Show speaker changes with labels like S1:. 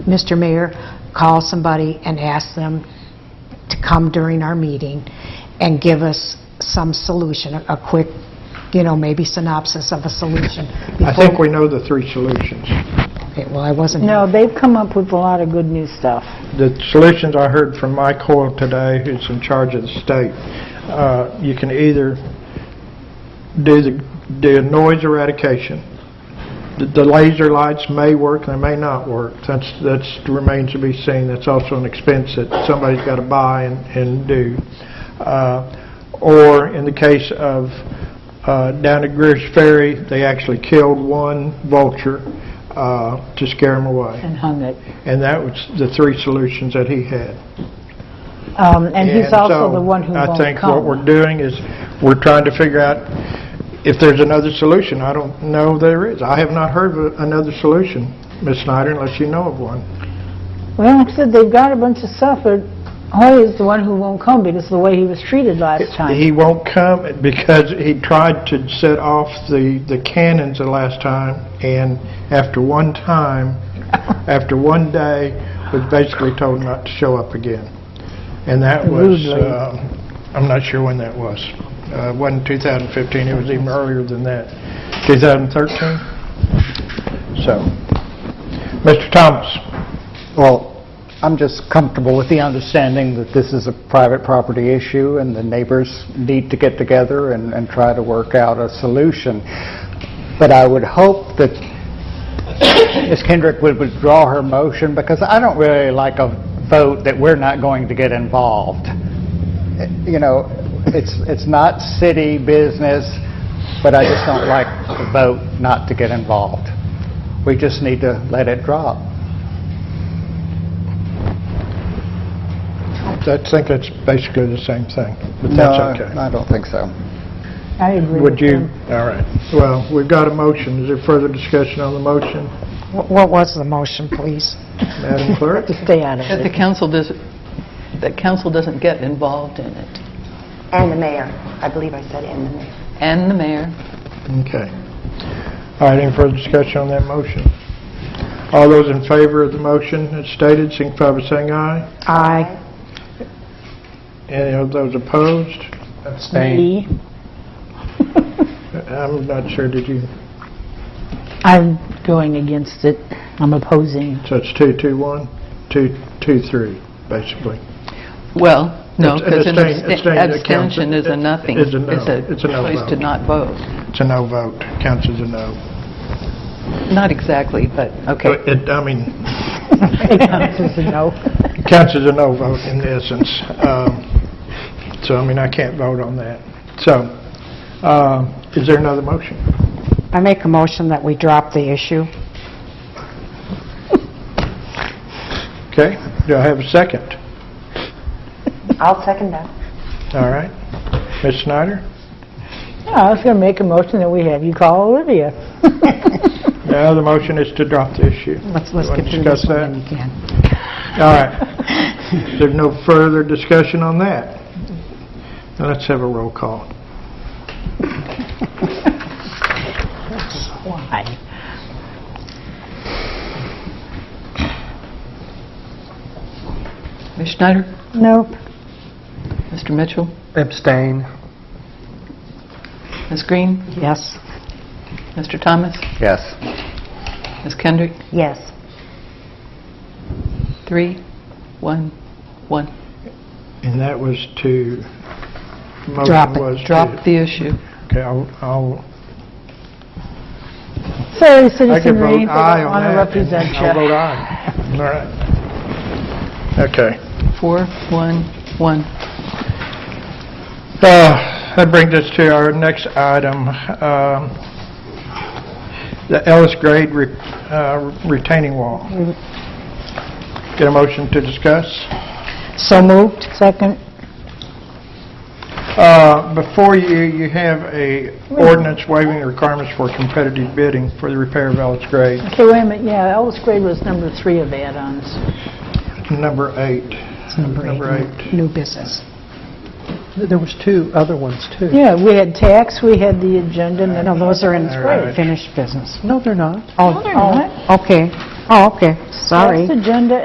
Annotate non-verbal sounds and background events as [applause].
S1: Mr. Mayor, call somebody and ask them to come during our meeting and give us some solution, a a quick, you know, maybe synopsis of a solution.
S2: I think we know the three solutions.
S1: Okay, Well, I wasn't...
S3: No, they've come up with a lot of good new stuff.
S2: The solutions I heard from Mike Hoyle today, who's in charge of the state, uh, you can either do the, do noise eradication. The- The laser lights may work, they may not work. That's, that's remains to be seen. That's also an expense that somebody's got to buy and, and do. Uh, Or in the case of uh, down at Greer's Ferry, they actually killed one vulture uh, to scare them away.
S3: And hung it.
S2: And that was the three solutions that he had.
S3: Um, And he's
S2: And
S3: also
S2: so
S3: the one who won't
S2: I
S3: come.
S2: think what we're doing is, we're trying to figure out if there's another solution. I don't know there is. I have not heard of another solution, Ms. Snyder, unless you know of one.
S3: Well, like I said, they've got a bunch of stuff, but Hoy is the one who won't come because of the way he was treated last time.
S2: He won't come because he tried to set off the, the cannons the last time, and after one
S3: [laughs]
S2: time, after one day, was basically told not to show up again. And that was,
S3: Rudely.
S2: um, I'm not sure when that was. Uh, It wasn't 2015, it was even earlier than that, 2013? So, Mr. Thomas,
S4: Well, I'm just comfortable with the understanding that this is a private property issue, and the neighbors need to get together and and try to work out a solution. But I would hope that [coughs] Ms. Kendrick would withdraw her motion, because I don't really like a vote that we're not going to get involved. You know, it's it's not city business, but I just don't like a vote not to get involved. We just need to let it drop.
S2: I think that's basically the same thing, but
S4: No,
S2: that's okay.
S4: I don't think so.
S3: I agree with
S2: Would you,
S3: him.
S2: all right. Well, we've got a motion. Is there further discussion on the motion,
S1: Wh- What was the motion, please?
S2: Madam [laughs] Clerk?
S3: To stay out of
S5: That
S3: it.
S5: the council doesn't, that council doesn't get involved in it,
S6: And the mayor. I believe I said and the mayor.
S5: and the mayor.
S2: Okay. All right, any further discussion on that motion? All those in favor of the motion as stated, signify by saying aye.
S1: Aye.
S2: Any of those opposed?
S3: Me?
S2: I'm not sure, did you,
S3: I'm going against it. I'm opposing.
S2: so it's two, two, one, two, two, three, basically.
S5: Well, no,
S2: It's-
S5: because an
S2: abstain- abstain that counts.
S5: abstention is a nothing.
S2: It's a no. It's
S5: It's
S2: a
S5: a
S2: no
S5: choice to
S2: vote.
S5: not vote.
S2: It's a no vote, counts as a no.
S5: Not exactly, but, okay.
S2: It, I mean,
S3: It counts as a no.
S2: counts as a no vote in essence. Um, So, I mean, I can't vote on that. So, um, is there another motion?
S1: I make a motion that we drop the issue.
S2: Okay, do I have a second?
S6: I'll second that.
S2: All right. Ms. Snyder?
S3: Yeah, I was going to make a motion that we have you call Olivia.
S2: Now, the motion is to drop the issue.
S1: Let's let's
S2: You wanna
S1: get through this
S2: discuss
S1: one
S2: that?
S1: when we can.
S2: All right. There's no further discussion on that. Now, let's have a roll call.
S3: Why?
S5: Ms. Schneider?
S3: Nope.
S5: Mr. Mitchell?
S4: Abstain.
S5: Ms. Green?
S1: Yes.
S5: Mr. Thomas?
S4: Yes.
S5: Ms. Kendrick?
S6: Yes.
S5: Three, one, one.
S2: And that was to,
S1: Drop
S2: motion
S1: it.
S2: was to...
S5: Drop the issue.
S2: Okay, I'll- I'll,
S3: Sorry,
S2: I
S3: Citizen
S2: can
S3: Reed, they
S2: vote aye on
S3: don't want to
S2: that.
S3: represent
S2: and
S3: you.
S2: I'll vote aye. All right. Okay.
S5: Four, one, one.
S2: Uh, That brings us to our next item, um, the Ellis Grade re- uh, retaining wall. Get a motion to discuss?
S3: So moved. Second.
S2: Uh, Before you, you have a ordinance waiving the requirements for competitive bidding for the repair of Ellis Grade,
S3: Okay, wait a minute, yeah, Ellis Grade was number three of add-ons.
S2: number eight.
S1: It's number eight. New business.
S7: There was two other ones, too.
S3: Yeah, we had tax, we had the agenda, and then... oh,
S1: No, those are in
S2: All right.
S1: finished business.
S7: No, they're not.
S1: Oh,
S3: they're not.
S1: oh, Okay, oh, okay, sorry.
S3: Tax, agenda,